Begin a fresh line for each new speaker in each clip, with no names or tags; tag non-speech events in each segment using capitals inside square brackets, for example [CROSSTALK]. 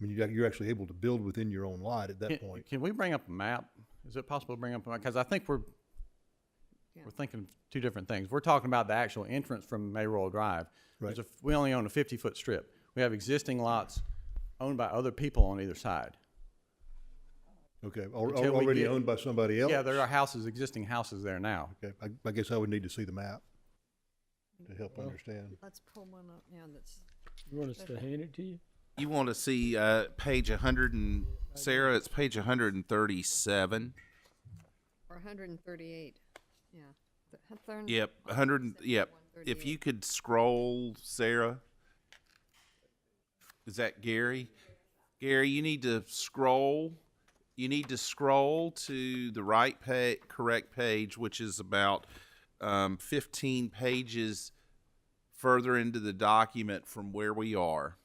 mean, you, you're actually able to build within your own lot at that
Can-
point.
Can we bring up a map? Is it possible to bring up a map? Because I think we're,
Yeah.
we're thinking two different things. We're talking about the actual entrance from Mayoral Drive. There's
Right.
a- We only own a fifty-foot strip. We have existing lots owned by other people on either side.
Okay, al-
Until we
already
get-
owned by somebody else?
Yeah, there are houses, existing houses there now.
Okay, I, I guess I would need to see the map to help understand.
Let's pull one up now that's,
You want us to hand it to you?
You want to see uh, page 100 and Sarah? It's page 137.
or hundred and thirty-eight, yeah. Th- a third-
Yep, 100. and- Yep. If you could scroll, Sarah. Is that Gary? Gary, you need to scroll. You need to scroll to the right pa- correct page, which is about um, 15 pages further into the document from where we are.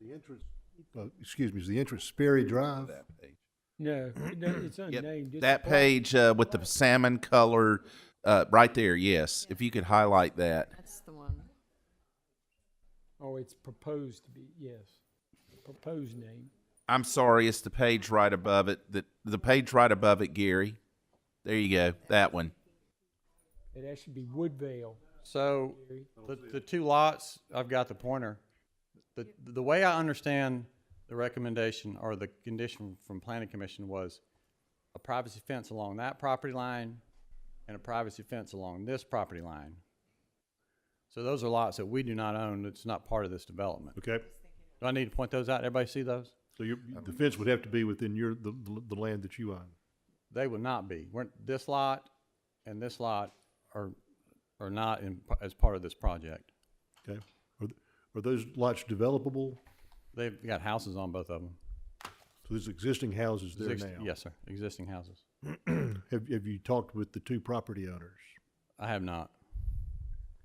The entrance, uh, excuse me, is the entrance Sperry Drive?
That page.
No, it
[CLEARS THROAT]
don't- it's
Yep,
unnamed. It's
That
a-
page uh, with the salmon color, uh, right there. Yes, if you could highlight that.
That's the one.
Oh, it's proposed to be, yes. Proposed name.
I'm sorry, it's the page right above it. The the page right above it, Gary. There you go. That one.
It actually be Woodvale.
So the, the two lots, I've got the pointer. The, the way I understand the recommendation or the condition from planning commission was a privacy fence along that property line and a privacy fence along this property line. So those are lots that we do not own, it's not part of this development.
Okay,
Do I need to point those out? Everybody see those?
so your, the fence would have to be within your, the, the- the land that you own.
They would not be. We're, this lot and this lot are, are not in, as part of this project.
Okay, are, th- are those lots developable?
They've got houses on both of them.
So there's existing houses there
Exist-
now?
Yes, sir. Existing houses.
Have, have you talked with the two property owners?
I have not.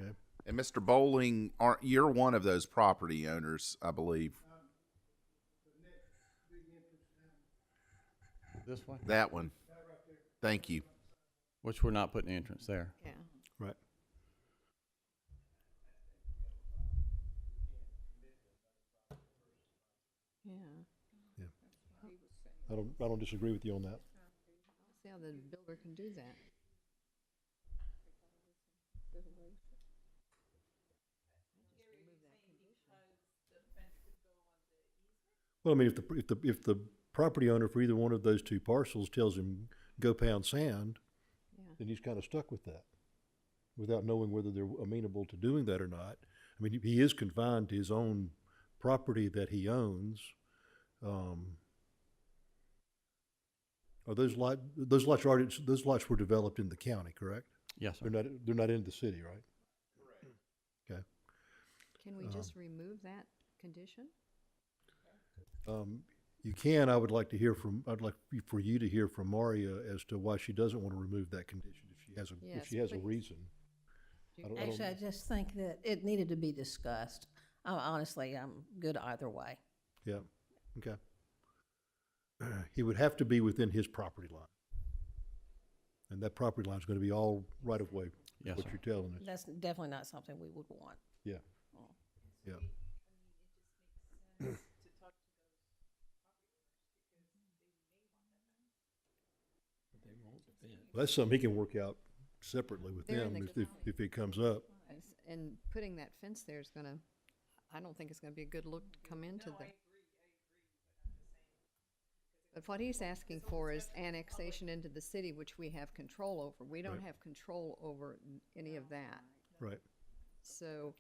Okay,
And Mr. Bowling, aren't you're one of those property owners, I believe.
This way,
That one. Thank you.
which we're not putting the entrance there.
Yeah,
right.
yeah.
I don't, I don't disagree with you on that.
See how the builder can do that.
Well, I mean, if the, if the, if the property owner for either one of those two parcels tells him, go pound sand,
Yeah.
then he's kind of stuck with that without knowing whether they're amenable to doing that or not. I mean, he is confined to his own property that he owns. Um, are those lot, those lots are already, those lots were developed in the county, correct?
Yes, sir.
They're not, they're not in the city, right? Okay.
Can we just
Uh-huh.
remove that condition?
Um, you can, I would like to hear from, I'd like for you to hear from Maria as to why she doesn't want to remove that condition if she has a, if
Yes,
she has a
please.
reason. I don't- I don't-
Actually, I just think that it needed to be discussed. Uh, Honestly, I'm good either way.
Yeah, okay. [CLEARS THROAT] He would have to be within his property line. And that property line's gonna be all right of way, is
Yes,
what
sir.
you're telling us,
That's definitely not something we would want.
yeah. Yeah, Well, that's something he can work out separately with
They're in
them
the
if, if, if it comes up.
It's- And putting that fence there is gonna, I don't think it's gonna be a good look to come into the. But what he's asking for is annexation into the city, which we have control over. We don't
Right.
have control over n- any of that,
Right,
so.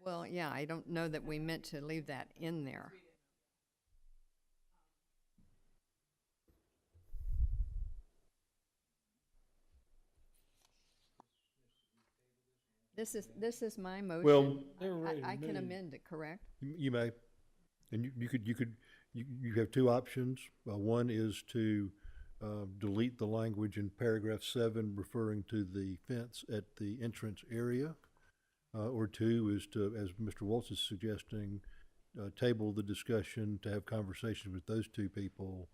Well, yeah, I don't know that we meant to leave that in there. This is, this is my motion.
They were
I,
ready to
I can
move.
amend it, correct?
you you may, and you, you could, you could, you, you have two options. Uh, one is to, uh, delete the language in paragraph seven referring to the fence at the entrance area. Uh, or two is to, as Mr. Waltz is suggesting, uh, table the discussion to have conversations with those two people